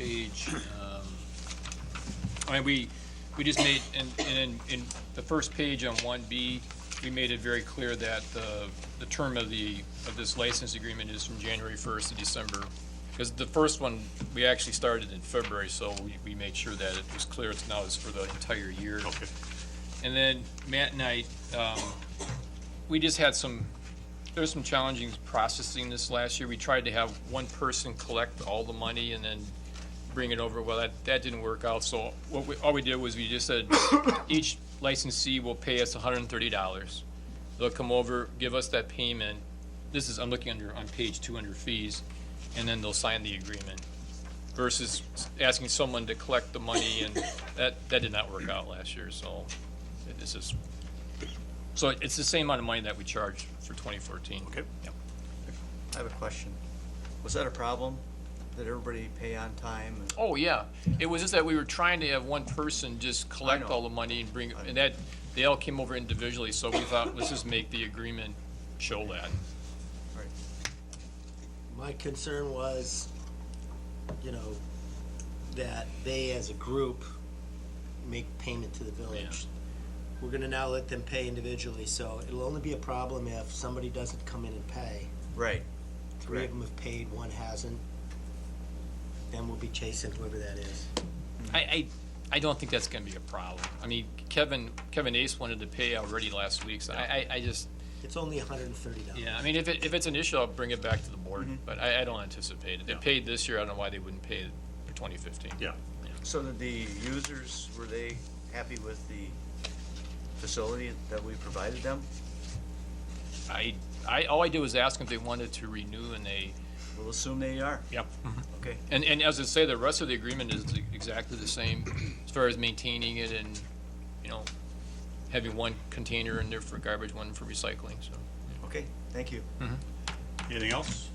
page, um, I mean, we, we just made, and, and in, in the first page on one B, we made it very clear that the, the term of the, of this license agreement is from January first to December. Because the first one, we actually started in February, so we, we made sure that it was clear it's now is for the entire year. Okay. And then Matt and I, um, we just had some, there was some challenging processing this last year. We tried to have one person collect all the money and then bring it over. Well, that, that didn't work out, so what we, all we did was we just said, each licensee will pay us hundred and thirty dollars. They'll come over, give us that payment. This is, I'm looking under, on page two under fees, and then they'll sign the agreement versus asking someone to collect the money, and that, that did not work out last year, so this is, so it's the same amount of money that we charged for 2014. Okay. I have a question. Was that a problem? Did everybody pay on time? Oh, yeah. It was just that we were trying to have one person just collect know. all the money and bring, and that, they all came over individually, so we thought, let's just make the agreement show that. Right. My concern was, you know, that they as a group make payment to the village. We're gonna now let them pay individually, so it'll only be a problem if somebody doesn't come in and pay. Right. Three Correct. of them have paid, one hasn't. Then we'll be chasing whoever that is. I, I, I don't think that's gonna be a problem. I mean, Kevin, Kevin Ace wanted to pay already last week, so I, I, I just, It's only hundred and thirty dollars. yeah, I mean, if it, if it's an issue, I'll bring it back to the board, but I, I don't anticipate it. They Yeah. paid this year, I don't know why they wouldn't pay for 2015. Yeah. So did the users, were they happy with the facility that we provided them? I, I, all I did was ask them if they wanted to renew and they, We'll assume they are. yep. Okay. And, and as I say, the rest of the agreement is exactly the same as far as maintaining it and, you know, having one container in there for garbage, one for recycling, so. Okay, thank you. Anything else?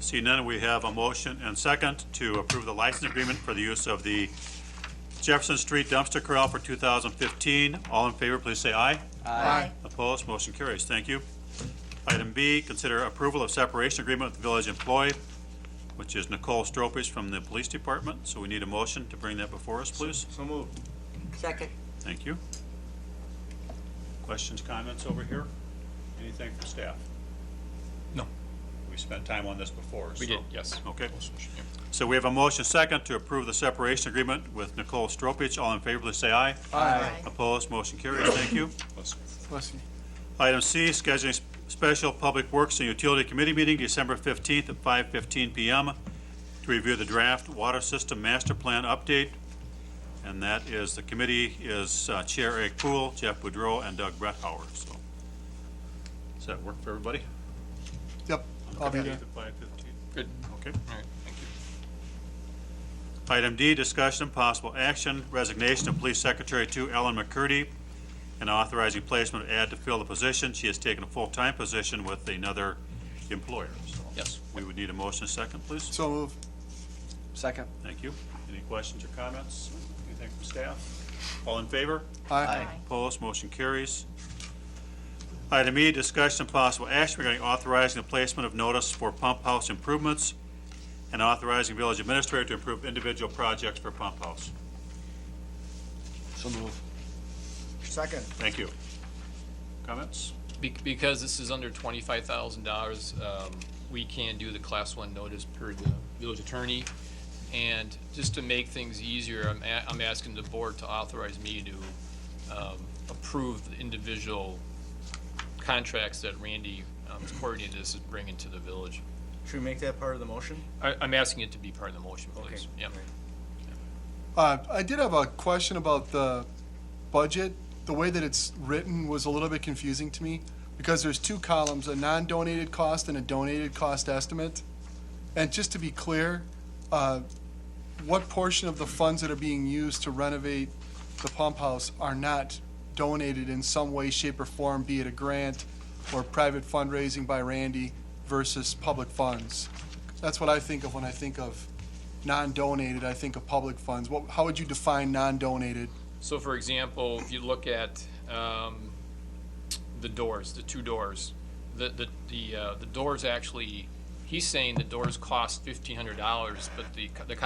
See none, we have a motion and second to approve the license agreement for the use of the Jefferson Street dumpster corral for 2015. All in favor, please say aye. Aye. Opposed, motion carries. Thank you. Item B, consider approval of separation agreement with the village employee, which is Nicole Stropich from the police department. So we need a motion to bring that before us, please. So moved. Second. Thank you. Questions, comments over here? Anything from staff? No. We spent time on this before, We so- did, yes. Okay. So we have a motion second to approve the separation agreement with Nicole Stropich. All in favor, please say aye. Aye. Opposed, motion carries. Thank you. Item C, scheduling s- special Public Works and Utility Committee meeting December 15th at 5:15 PM to review the draft water system master plan update. And that is, the committee is uh, Chair Eric Poole, Jeff Boudreau, and Doug Brethauer. So, does that work for everybody? Yep, I'll be there. 5:15. Good, Okay. all right, thank you. Item D, discussion and possible action, resignation of Police Secretary to Ellen McCurdy, and authorizing placement of ad to fill the position. She has taken a full-time position with another employer. So Yes. We would need a motion and second, please. So move. Second. Thank you. Any questions or comments? Anything from staff? All in favor? Aye. Opposed, motion carries. Item E, discussion and possible action regarding authorizing the placement of notice for pump house improvements and authorizing village administrator to approve individual projects for pump house. So move. Second. Thank you. Comments? Be- Because this is under twenty-five thousand dollars, um, we can do the class one notice per the village attorney. And just to make things easier, I'm, a- I'm asking the board to authorize me to, um, approve the individual contracts that Randy, um, coordinated is bringing to the village. Should we make that part of the motion? I, I'm asking it to be part of the motion, please. Okay. Yep. Uh, I did have a question about the budget. The way that it's written was a little bit confusing to me because there's two columns, a non-donated cost and a donated cost estimate. And just to be clear, uh, what portion of the funds that are being used to renovate the pump house are not donated in some way, shape, or form, be it a grant or private fundraising by Randy versus public funds? That's what I think of when I think of non-donated, I think of public funds. What, how would you define non-donated? So for example, if you look at um, the doors, the two doors, the, the, the, uh, the doors actually he's saying the doors cost fifteen hundred dollars, but the, co- the